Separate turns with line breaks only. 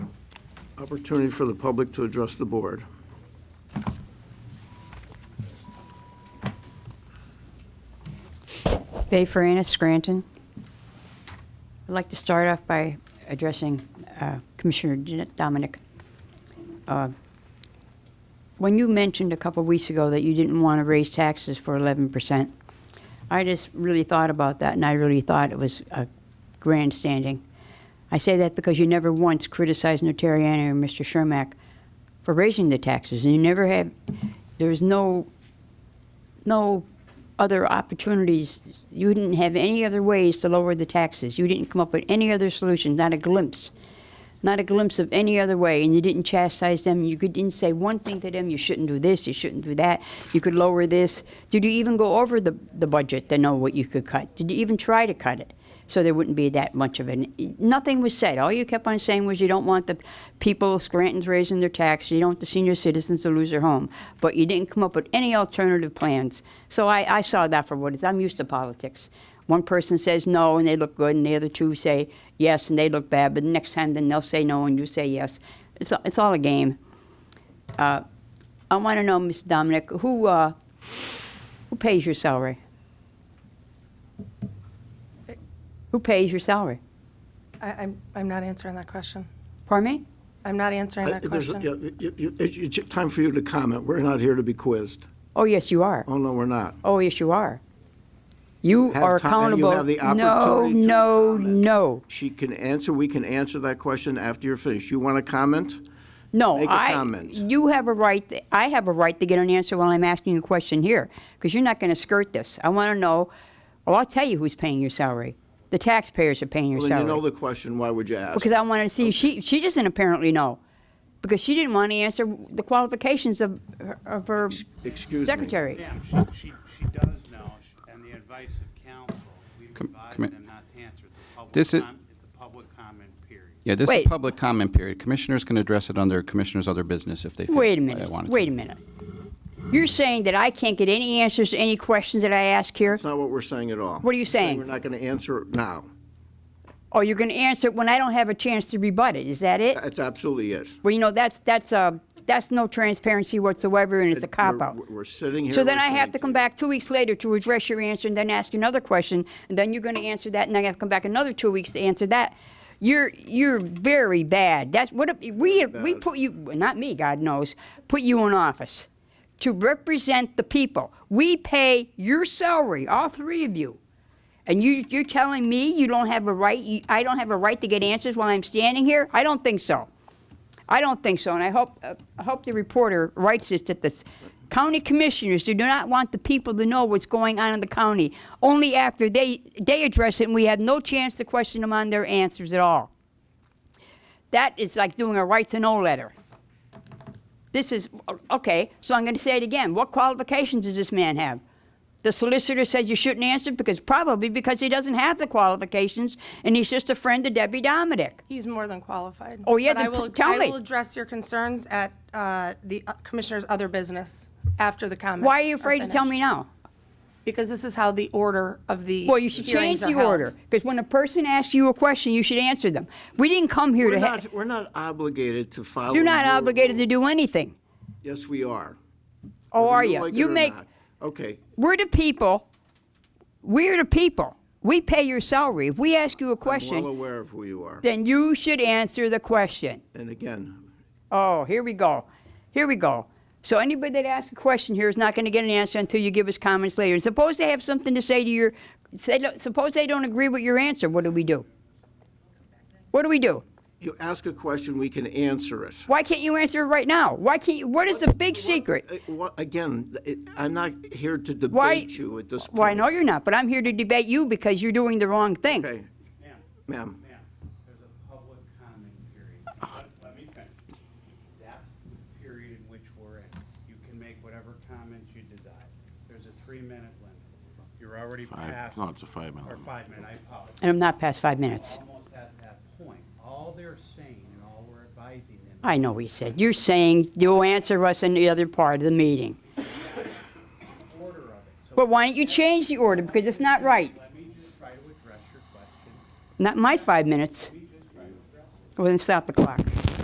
Opportunity for the public to address the board.
Bay Farina, Scranton. I'd like to start off by addressing uh, Commissioner D- Dominic. Uh, When you mentioned a couple weeks ago that you didn't want to raise taxes for 11%, I just really thought about that, and I really thought it was uh, grandstanding. I say that because you never once criticized Notarianni or Mr. Shermack for raising the taxes, and you never had, there was no no other opportunities. You didn't have any other ways to lower the taxes. You didn't come up with any other solution, not a glimpse. Not a glimpse of any other way, and you didn't chastise them. You could- didn't say one thing to them. You shouldn't do this. You shouldn't do that. You could lower this. Did you even go over the, the budget to know what you could cut? Did you even try to cut it? So there wouldn't be that much of an. Nothing was said. All you kept on saying was you don't want the people, Scranton's raising their taxes. You don't want the senior citizens to lose their home. But you didn't come up with any alternative plans. So I, I saw that for what it is. I'm used to politics. One person says no and they look good, and the other two say yes and they look bad. But the next time, then they'll say no and you say yes. It's, it's all a game. Uh, I want to know, Ms. Dominic, who uh, who pays your salary? Who pays your salary?
I, I'm, I'm not answering that question.
Pardon me?
I'm not answering that
There's- yeah,
question.
you- you- It's it's time for you to comment. We're not here to be quizzed.
Oh, yes, you are.
Oh, no, we're not.
Oh, yes, you are. You
Have
are
ti- and you
accountable.
have the opportunity to
No, no,
comment.
no.
She can answer, we can answer that question after you're finished. You want to comment?
No,
Make a
I.
comment.
You have a right. I have a right to get an answer while I'm asking you a question here, because you're not going to skirt this. I want to know. Well, I'll tell you who's paying your salary. The taxpayers are paying your
Well, then
salary.
you know the question, why would you ask?
because I wanted to see she she doesn't apparently know because she didn't want to answer the qualifications of her, of her
Excuse me.
secretary.
Ma'am, she, she, she does know, sh- and the advice of counsel, we advise
come here.
them not to answer. It's a public
This is-
com- It's a public comment period.
Yeah, this
Wait.
is public comment period. Commissioners can address it under Commissioners' Other Business if they feel
Wait a
they
minute.
wanted to.
Wait a minute. You're saying that I can't get any answers to any questions that I ask here?
That's not what we're saying at all.
What are you
We're
saying?
We're not going to answer it now.
Or Oh, you're going to answer it when I don't have a chance to rebut it? Is that it?
That's absolutely it.
Well, you know that's that's uh, that's no transparency whatsoever, and it's a cop
We're-
out.
We're sitting here.
So then I have
listening
to come
you.
back two weeks later to address your answer and then ask you another question, and then you're going to answer that, and then I have to come back another two weeks to answer that. You're you're very bad. That's what a- we we put you well, not me, God knows, put you in office to represent the people. We pay your salary, all three of you. And you, you're telling me you don't have a right, you, I don't have a right to get answers while I'm standing here? I don't think so. I don't think so, and I hope, uh, I hope the reporter writes this, that the s- county commissioners do not want the people to know what's going on in the county, only after they, they address it, and we have no chance to question them on their answers at all. That is like doing a right-to-know letter. This is, okay, so I'm going to say it again. What qualifications does this man have? The solicitor says you shouldn't answer because, probably because he doesn't have the qualifications, and he's just a friend of Debbie Dominic.
He's more than qualified.
Oh, yeah,
But I
then pl-
will-
tell
I
me.
will address your concerns at uh, the uh, Commissioner's other business after the comments.
Why are you afraid to tell me
finished.
now?
Because this is how the order of the
Well, you should change
hearings
the
are held.
order, because when a person asks you a question, you should answer them. We didn't come here
We're
to, ha-
not, we're not obligated to follow.
you're not
your
obligated to
rules.
do anything.
Yes, we are.
Oh,
Whether
are
you
you?
like it
You
or
make,
not. Okay,
we're the people, we're the people. We pay your salary. If we ask you a
I'm well
question,
aware of who you are.
then you should answer the question.
And again,
Oh, here we go. Here we go. So anybody that asks a question here is not going to get an answer until you give us comments later. And suppose they have something to say to your, say, suppose they don't agree with your answer, what do we do? What do we do?
you ask a question, we can answer it.
Why can't you answer it right now? Why can't you? What is the big secret?
Uh, wha- Again, it- I'm not here to
Why?
debate you at this point.
Well, I know you're not, but I'm here to debate you because you're doing the wrong thing.
Okay,
Ma'am,
ma'am.
ma'am, there's a public comment period. Let, let me finish. That's the period in which we're in. You can make whatever comments you desire. There's a three-minute limit. You're already past. No, it's a five-minute. Or five-minute, I apologize.
And I'm not past five minutes.
Almost at that point. All they're saying and all we're advising them
I know what you said. You're saying you'll answer us in the other part of the meeting.
is order of it. So
But why don't you change the order? Because it's not right.
let me just try to address your question
Not my five minutes. Well, then stop the clock.